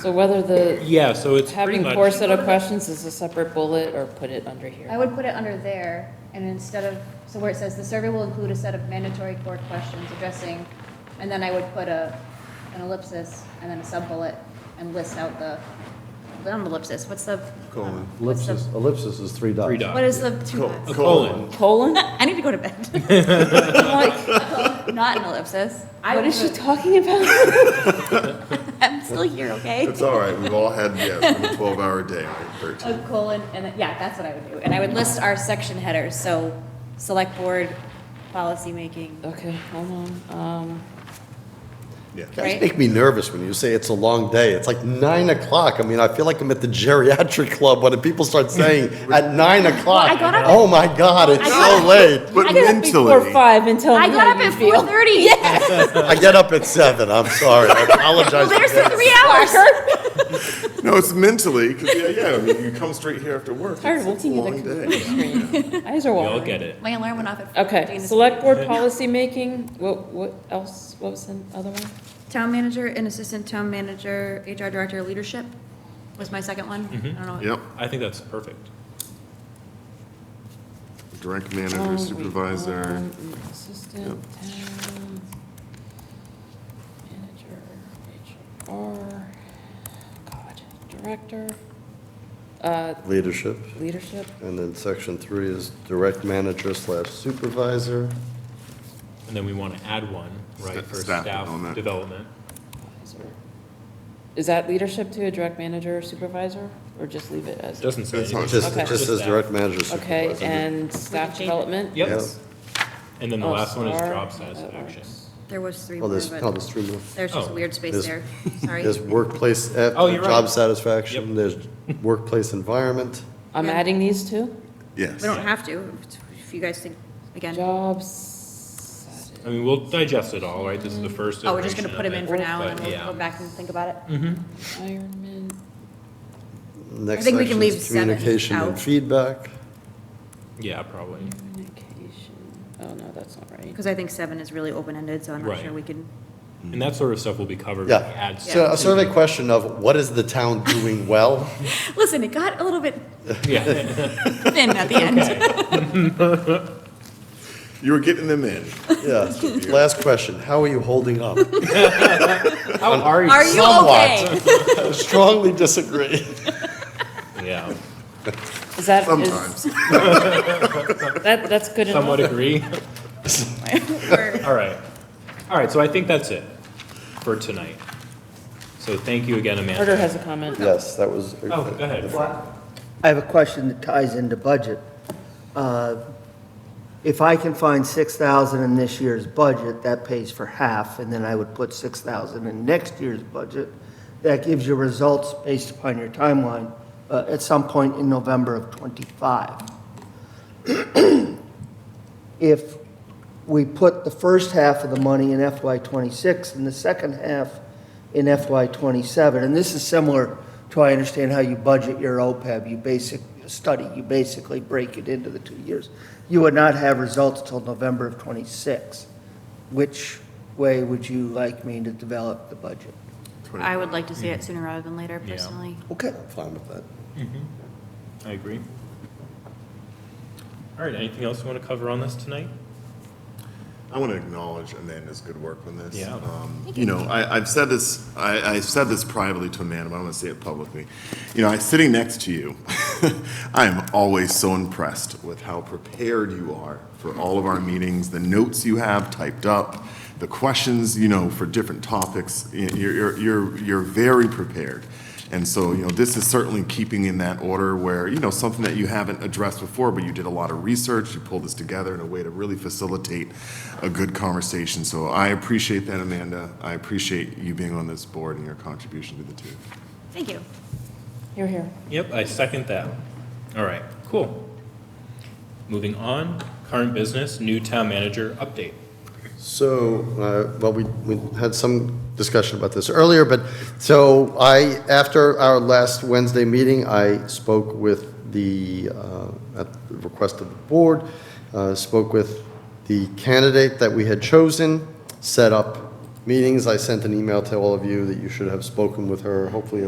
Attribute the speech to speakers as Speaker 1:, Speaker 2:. Speaker 1: So whether the,
Speaker 2: Yeah, so it's pretty
Speaker 1: having
Speaker 2: much.
Speaker 1: core set of questions is a separate bullet or put it under here?
Speaker 3: I would put it under there, and instead of, so where it says, the survey will include a set of mandatory core questions addressing, and then I would put a, an ellipsis, and then a sub-bullet, and list out the, not an ellipsis, what's the?
Speaker 4: Colon.
Speaker 3: what's the-
Speaker 5: Ellipsis, ellipsis is three dots.
Speaker 2: Three dots.
Speaker 3: What is the two
Speaker 4: Co-
Speaker 3: dots?
Speaker 2: A colon.
Speaker 1: Colon?
Speaker 3: I need to go to bed.
Speaker 1: Like,
Speaker 3: Not an ellipsis.
Speaker 1: What is she
Speaker 3: would-
Speaker 1: talking about?
Speaker 3: I'm still here, okay?
Speaker 4: It's all right, we've all had, yeah, it's been a 12-hour day, right, 13.
Speaker 3: A colon, and then, yeah, that's what I would do, and I would list our section headers, so, select board, policy making.
Speaker 1: Okay, hold on, um,
Speaker 4: Yeah.
Speaker 3: Right.
Speaker 5: Guys make me nervous when you say it's a long day. It's like nine o'clock. I mean, I feel like I'm at the geriatric club when people start saying at nine o'clock,
Speaker 3: got up-
Speaker 5: oh my God, it's
Speaker 3: got
Speaker 5: so late.
Speaker 4: But
Speaker 1: before
Speaker 4: mentally,
Speaker 1: Um, five and tell me
Speaker 3: I got
Speaker 1: how
Speaker 3: up
Speaker 1: you
Speaker 3: at
Speaker 1: feel.
Speaker 3: four thirty. Yes.
Speaker 5: I get up at seven. I'm sorry. I apologize.
Speaker 3: There's the three hours.
Speaker 4: no, it's mentally, because, yeah, yeah, I mean, you come straight here after work.
Speaker 1: Tired of
Speaker 4: it's- it's a
Speaker 1: looking at the computer
Speaker 4: long day.
Speaker 1: screen. Eyes are
Speaker 2: We
Speaker 1: watering.
Speaker 2: all get it.
Speaker 3: My alarm went off at.
Speaker 1: Okay, select board policy making, what, what else, what was the other one?
Speaker 3: Town manager and assistant town manager, HR director, leadership was my second one. I don't know.
Speaker 4: Mm-hmm. Yep,
Speaker 2: I think that's perfect.
Speaker 4: direct
Speaker 1: Oh,
Speaker 4: manager, supervisor.
Speaker 1: Um, Assistant, town, manager, HR, God, director, uh,
Speaker 5: Leadership.
Speaker 1: leadership,
Speaker 5: And then section three is direct manager slash supervisor.
Speaker 2: And then we want to add one, right,
Speaker 4: Sta-
Speaker 2: for
Speaker 4: staff
Speaker 2: staff
Speaker 4: development.
Speaker 2: development.
Speaker 1: advisor. Is that leadership to a direct manager or supervisor, or just leave it as?
Speaker 2: Doesn't say.
Speaker 4: That's
Speaker 2: anything.
Speaker 4: not-
Speaker 5: Just,
Speaker 1: Okay.
Speaker 5: it just says
Speaker 2: that.
Speaker 5: direct manager supervisor.
Speaker 1: Okay, and staff
Speaker 3: change it.
Speaker 1: development?
Speaker 2: Yep.
Speaker 5: Yeah.
Speaker 2: And then the
Speaker 1: Oh,
Speaker 2: last one is
Speaker 1: star,
Speaker 2: job
Speaker 1: that
Speaker 2: satisfaction.
Speaker 1: works.
Speaker 3: There was three
Speaker 5: Oh,
Speaker 3: more,
Speaker 5: there's, no,
Speaker 3: but
Speaker 5: there's three more.
Speaker 3: there's just a
Speaker 2: Oh.
Speaker 3: weird space
Speaker 5: There's-
Speaker 3: there. Sorry.
Speaker 5: There's workplace, af-
Speaker 2: Oh, you're right.
Speaker 5: job satisfaction, there's workplace environment.
Speaker 1: I'm adding these two?
Speaker 4: Yes.
Speaker 3: We don't have to, if you guys think, again,
Speaker 1: Jobs.
Speaker 2: I mean, we'll digest it all, right? This is the first.
Speaker 3: oh, we're just gonna
Speaker 2: iteration
Speaker 3: put them
Speaker 2: of
Speaker 3: in
Speaker 2: it,
Speaker 3: for now and
Speaker 2: but
Speaker 3: then
Speaker 2: yeah.
Speaker 3: we'll go back and think about it.
Speaker 1: Retirement.
Speaker 5: Next
Speaker 3: think we can
Speaker 5: section
Speaker 3: leave
Speaker 5: is
Speaker 3: seven
Speaker 5: communication
Speaker 3: out.
Speaker 5: and feedback.
Speaker 2: Yeah, probably.
Speaker 4: Mm-hmm.
Speaker 1: Communication. Oh, no, that's not right.
Speaker 3: Because I think seven is really open-ended, so I'm not
Speaker 2: Right.
Speaker 3: sure we can.
Speaker 2: And that sort of stuff will be covered. when we
Speaker 5: Yeah.
Speaker 2: add
Speaker 5: So a
Speaker 2: stuff.
Speaker 5: survey question of what is the town doing well?
Speaker 3: Listen, it got a little bit
Speaker 2: Yeah.
Speaker 3: thin at the end.
Speaker 4: You were getting them in.
Speaker 5: Yeah. Last question, how are you holding up?
Speaker 2: How are
Speaker 3: Are you
Speaker 5: Somewhat.
Speaker 3: okay?
Speaker 5: Strongly disagree.
Speaker 2: Yeah.
Speaker 1: Is that, is,
Speaker 4: Sometimes.
Speaker 1: that, that's good
Speaker 2: Somewhat
Speaker 1: enough?
Speaker 2: agree.
Speaker 3: We're-
Speaker 2: All right. All right, so I think that's it for tonight. So thank you again, Amanda.
Speaker 1: Carter has a comment.
Speaker 5: Yes, that was.
Speaker 2: Oh, go ahead.
Speaker 6: I have a question that ties into budget. Uh, If I can find 6,000 in this year's budget, that pays for half, and then I would put 6,000 in next year's budget. That gives you results based upon your timeline uh, at some point in November of '25. If we put the first half of the money in FY '26 and the second half in FY '27. And this is similar to, I understand how you budget your OPEB, you basic, study, you basically break it into the two years. You would not have results till November of '26. Which way would you like me to develop the budget?
Speaker 3: I would like to see it sooner rather than later,
Speaker 2: Yeah.
Speaker 3: personally.
Speaker 5: Okay, I'm fine with that.
Speaker 2: I agree. All right, anything else you want to cover on this tonight?
Speaker 4: I want to acknowledge Amanda's good work on this.
Speaker 2: Yeah.
Speaker 4: Um, You know, I, I've said this, I, I said this privately to Amanda, but I'm going to say it publicly. You know, I, sitting next to you, I am always so impressed with how prepared you are for all of our meetings, the notes you have typed up, the questions, you know, for different topics. Y- You're, you're, you're, you're very prepared. And so, you know, this is certainly keeping in that order where, you know, something that you haven't addressed before, but you did a lot of research, you pulled this together in a way to really facilitate a good conversation. So I appreciate that, Amanda. I appreciate you being on this board and your contribution to the team.
Speaker 3: Thank you.
Speaker 1: You're here.
Speaker 2: Yep, I second that. All right, cool. Moving on, current business, new town manager update.
Speaker 5: So, uh, well, we, we had some discussion about this earlier, but, so I, after our last Wednesday meeting, I spoke with the, uh, at the request of the board, uh, spoke with the candidate that we had chosen, set up meetings. I sent an email to all of you that you should have spoken with her, hopefully